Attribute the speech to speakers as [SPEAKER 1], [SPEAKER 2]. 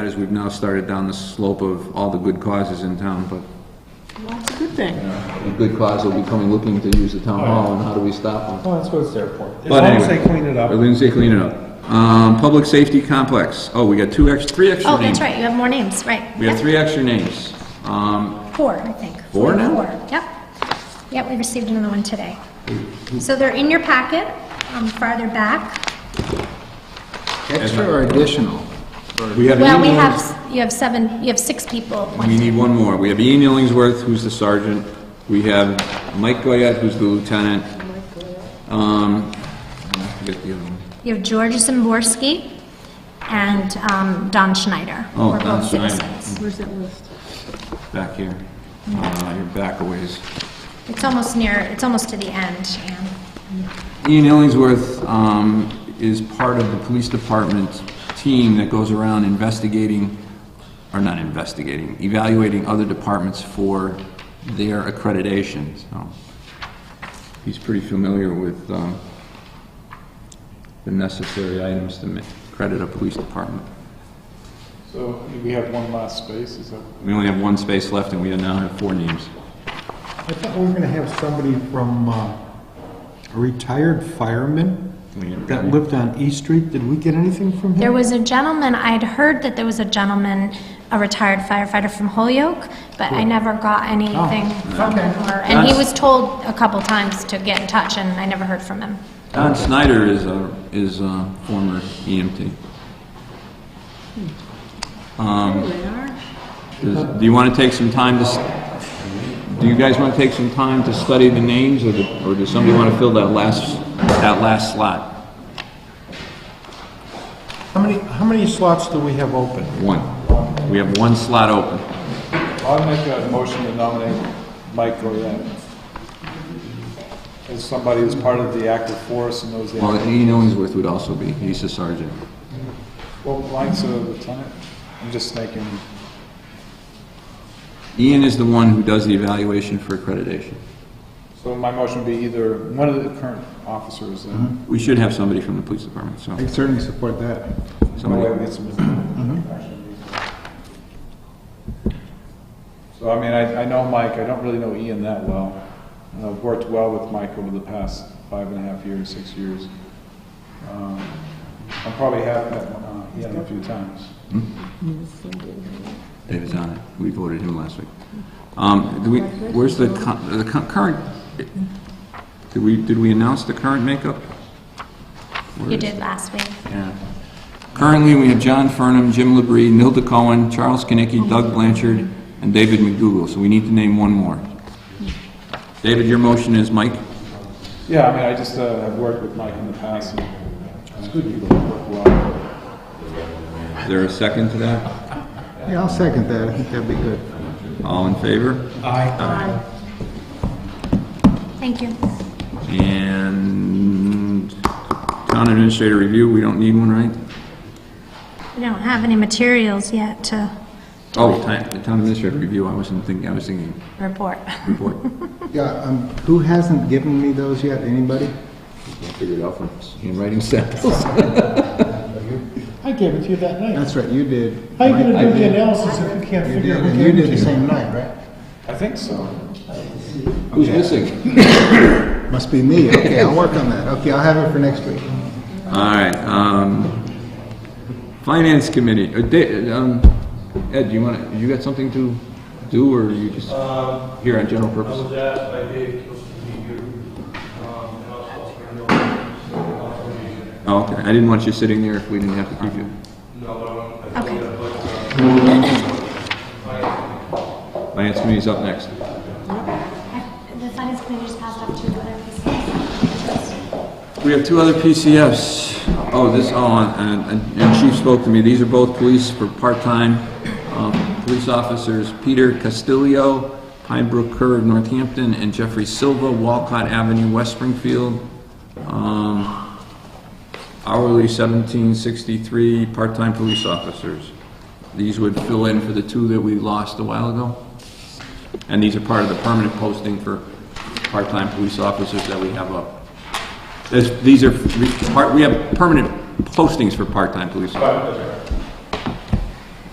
[SPEAKER 1] That is, we've now started down the slope of all the good causes in town, but
[SPEAKER 2] That's a good thing.
[SPEAKER 1] the good cause will be coming looking to use the town hall, and how do we stop them?
[SPEAKER 3] Well, that's what it's there for. Oh, As
[SPEAKER 1] But
[SPEAKER 3] long as
[SPEAKER 1] anyway.
[SPEAKER 3] they clean it
[SPEAKER 1] But
[SPEAKER 3] up.
[SPEAKER 1] Lindsay, clean it up. Um, Public Safety Complex, oh, we got two ex, three extra
[SPEAKER 4] Oh,
[SPEAKER 1] names.
[SPEAKER 4] that's right, you have more names, right.
[SPEAKER 1] We have
[SPEAKER 4] Yep.
[SPEAKER 1] three extra names. Um,
[SPEAKER 4] Four, I think.
[SPEAKER 1] Four now?
[SPEAKER 4] Four, yep. Yep, we received another one today. So they're in your packet, um, farther back.
[SPEAKER 5] Extra or additional?
[SPEAKER 1] We have
[SPEAKER 4] Well, we
[SPEAKER 1] Ian
[SPEAKER 4] have,
[SPEAKER 1] Illings-
[SPEAKER 4] s- you have seven, you have six people
[SPEAKER 1] We
[SPEAKER 4] appointed.
[SPEAKER 1] need one more. We have Ian Illingsworth, who's the sergeant. We have Mike Goyette, who's the lieutenant. Um, I forget the other one.
[SPEAKER 4] You have George Zimborski and um, Don Schneider.
[SPEAKER 1] Oh,
[SPEAKER 4] We're
[SPEAKER 1] Don
[SPEAKER 4] both
[SPEAKER 1] Schneider.
[SPEAKER 4] citizens.
[SPEAKER 2] Where's that list?
[SPEAKER 1] Back here. Uh, you're back a ways.
[SPEAKER 4] It's almost near, it's almost to the end, Anne.
[SPEAKER 1] Ian Illingsworth um, is part of the police department team that goes around investigating, or not investigating, evaluating other departments for their accreditation, so he's pretty familiar with um, the necessary items to ma- credit a police department.
[SPEAKER 3] So we have one last space, is that?
[SPEAKER 1] We only have one space left, and we now have four names.
[SPEAKER 6] I thought we were gonna have somebody from, uh, a retired fireman
[SPEAKER 1] We have-
[SPEAKER 6] that lived on E Street. Did we get anything from him?
[SPEAKER 4] There was a gentleman, I'd heard that there was a gentleman, a retired firefighter from Holyoke, but I never got anything from him. or- And he
[SPEAKER 1] Oh, That's-
[SPEAKER 4] was told a couple times to get in touch, and I never heard from him.
[SPEAKER 1] Don Snyder is a, is a former E EMT.
[SPEAKER 2] They are?
[SPEAKER 1] Does- Um, Do you want to take some time to, s- do you guys want to take some time to study the names, or do- or does somebody want to fill that last, that last slot?
[SPEAKER 6] How many, how many slots do we have open?
[SPEAKER 1] One. We have one slot open.
[SPEAKER 3] I'll make a motion to nominate Mike Goyette as somebody who's part of the active force and knows the,
[SPEAKER 1] Well, Ian Illingsworth would also be, he's a sergeant.
[SPEAKER 3] well, Mike's a lieutenant. I'm just thinking,
[SPEAKER 1] Ian is the one who does the evaluation for accreditation.
[SPEAKER 3] so my motion would be either one of the current officers, and
[SPEAKER 1] We should have somebody from the police department, so,
[SPEAKER 6] I certainly support that.
[SPEAKER 3] no way
[SPEAKER 1] somebody,
[SPEAKER 3] we get some. So I mean, I, I know Mike, I don't really know Ian that well. And I've worked well with Mike over the past five and a half years, six years. Um, I probably have met uh, Ian a few times.
[SPEAKER 1] David's on it. We voted him last week. Um, do we, where's the, cu- the cu- current, did we, did we announce the current makeup? Where
[SPEAKER 4] You
[SPEAKER 1] is-
[SPEAKER 4] did last week.
[SPEAKER 1] Yeah. Currently, we have John Furnham, Jim Labrie, Nilda Cohen, Charles Kinnicky, Doug Blanchard, and David McDougal, so we need to name one more. David, your motion is Mike?
[SPEAKER 3] Yeah, I mean, I just uh, have worked with Mike in the past. It's good people to work well.
[SPEAKER 1] Is there a second to that?
[SPEAKER 6] Yeah, I'll second that. I think that'd be good.
[SPEAKER 1] All in favor?
[SPEAKER 4] Thank you.
[SPEAKER 1] And town administrator review, we don't need one, right?
[SPEAKER 4] We don't have any materials yet to
[SPEAKER 1] Oh, ti- the town administrator review, I wasn't thinking, I was thinking
[SPEAKER 4] report.
[SPEAKER 1] report.
[SPEAKER 6] Yeah, um, who hasn't given me those yet? Anybody?
[SPEAKER 1] Figured out from handwriting samples.
[SPEAKER 7] I gave it to you that night.
[SPEAKER 6] That's right, you did.
[SPEAKER 7] How you gonna
[SPEAKER 6] I
[SPEAKER 7] do the
[SPEAKER 6] did.
[SPEAKER 7] analysis if you can't
[SPEAKER 6] You
[SPEAKER 7] figure
[SPEAKER 6] did,
[SPEAKER 7] out who
[SPEAKER 6] and you
[SPEAKER 7] gave it
[SPEAKER 6] did
[SPEAKER 7] to
[SPEAKER 6] the
[SPEAKER 7] you?
[SPEAKER 6] same night, right?
[SPEAKER 3] I think so.
[SPEAKER 1] Who's missing?
[SPEAKER 6] Must be me. Okay, I'll work on that. Okay, I'll have it for next week.
[SPEAKER 1] All right, um, Finance Committee, uh, Da- um, Ed, you want, you got something to do, or you just here on general
[SPEAKER 8] Um, I
[SPEAKER 1] purpose?
[SPEAKER 8] was asked by Dave Kilson to meet you, um, and also Fernando, uh, for me.
[SPEAKER 1] Oh, okay, I didn't want you sitting there if we didn't have to keep you.
[SPEAKER 8] No, but I'm- I think
[SPEAKER 4] Okay.
[SPEAKER 8] that, but,
[SPEAKER 1] Finance Committee's up next.
[SPEAKER 4] The finance committee just passed up two other pieces.
[SPEAKER 1] We have two other PCFs. Oh, this, oh, and, and- and Chief spoke to me, these are both police for part-time, um, police officers, Peter Castillo, Pine Brook Curve, Northampton, and Jeffrey Silva, Walcott Avenue, West Springfield. Um, hourly seventeen sixty-three, part-time police officers. These would fill in for the two that we lost a while ago. And these are part of the permanent posting for part-time police officers that we have up. This- These are, re- part- we have permanent postings for part-time police officers.